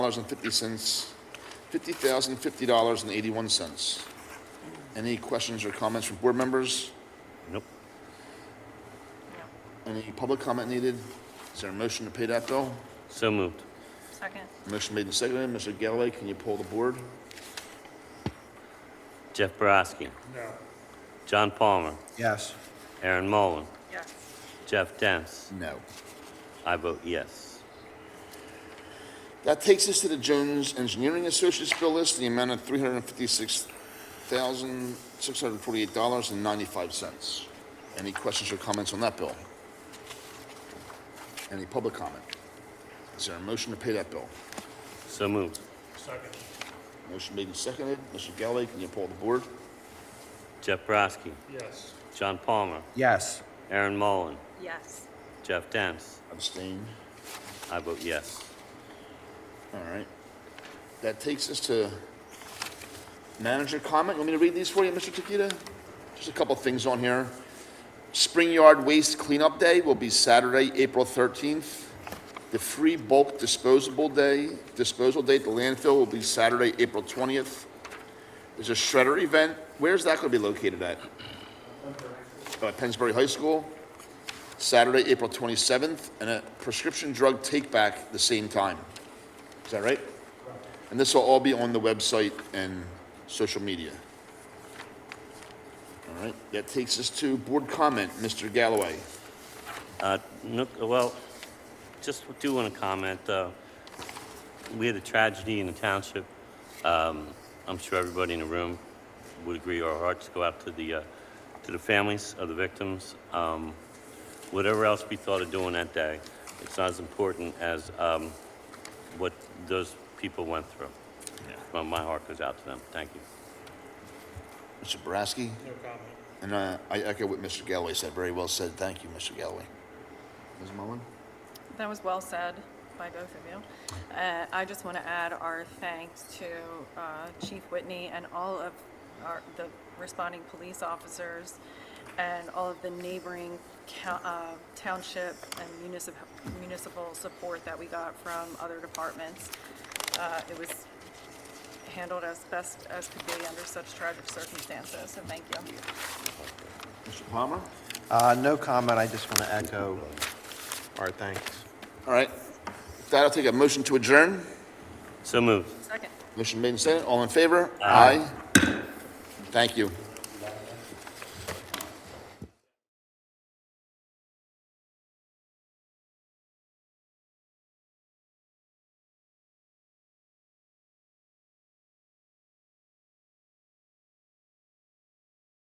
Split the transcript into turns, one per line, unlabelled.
dollars and fifty cents, fifty thousand fifty dollars and eighty-one cents. Any questions or comments from board members?
Nope.
Any public comment needed? Is there a motion to pay that bill?
So moved.
Second.
Motion made and seconded. Mr. Galloway, can you pull the board?
Jeff Baraski. No. John Palmer.
Yes.
Aaron Mullen.
Yes.
Jeff Dance.
No.
I vote yes.
That takes us to the Jones Engineering Associates bill list, the amount of three hundred and fifty-six thousand, six hundred and forty-eight dollars and ninety-five cents. Any questions or comments on that bill? Any public comment? Is there a motion to pay that bill?
So moved.
Motion made and seconded. Mr. Galloway, can you pull the board?
Jeff Baraski. Yes. John Palmer.
Yes.
Aaron Mullen.
Yes.
Jeff Dance.
Abstain.
I vote yes.
All right. That takes us to manager comment. You want me to read these for you, Mr. Tequita? Just a couple things on here. Spring Yard Waste Cleanup Day will be Saturday, April 13th. The Free Bulk Disposable Day, disposal date, the landfill will be Saturday, April 20th. There's a shredder event. Where's that going to be located at? Uh, Pennsbury High School, Saturday, April 27th, and a prescription drug take-back the same time. Is that right? And this will all be on the website and social media. All right, that takes us to board comment, Mr. Galloway.
Uh, no, well, just do want to comment, uh, we had a tragedy in the township. Um, I'm sure everybody in the room would agree our hearts go out to the, uh, to the families of the victims. Um, whatever else we thought of doing that day, it's not as important as, um, what those people went through. Well, my heart goes out to them. Thank you.
Mr. Boraski? No comment. And uh, I echo what Mr. Galloway said, very well said, thank you, Mr. Galloway. Ms. Mullin?
That was well said by both of you. Uh, I just want to add our thanks to uh, Chief Whitney and all of our, the responding police officers and all of the neighboring cou- uh, township and municipal, municipal support that we got from other departments. Uh, It was handled as best as could be under such tragic circumstances, so thank you.
Mr. Palmer?
Uh, no comment, I just want to echo our thanks.
All right, With that, I'll take a motion to adjourn.
So moved.
Second.
Motion made and seconded, all in favor? Aye. Thank you.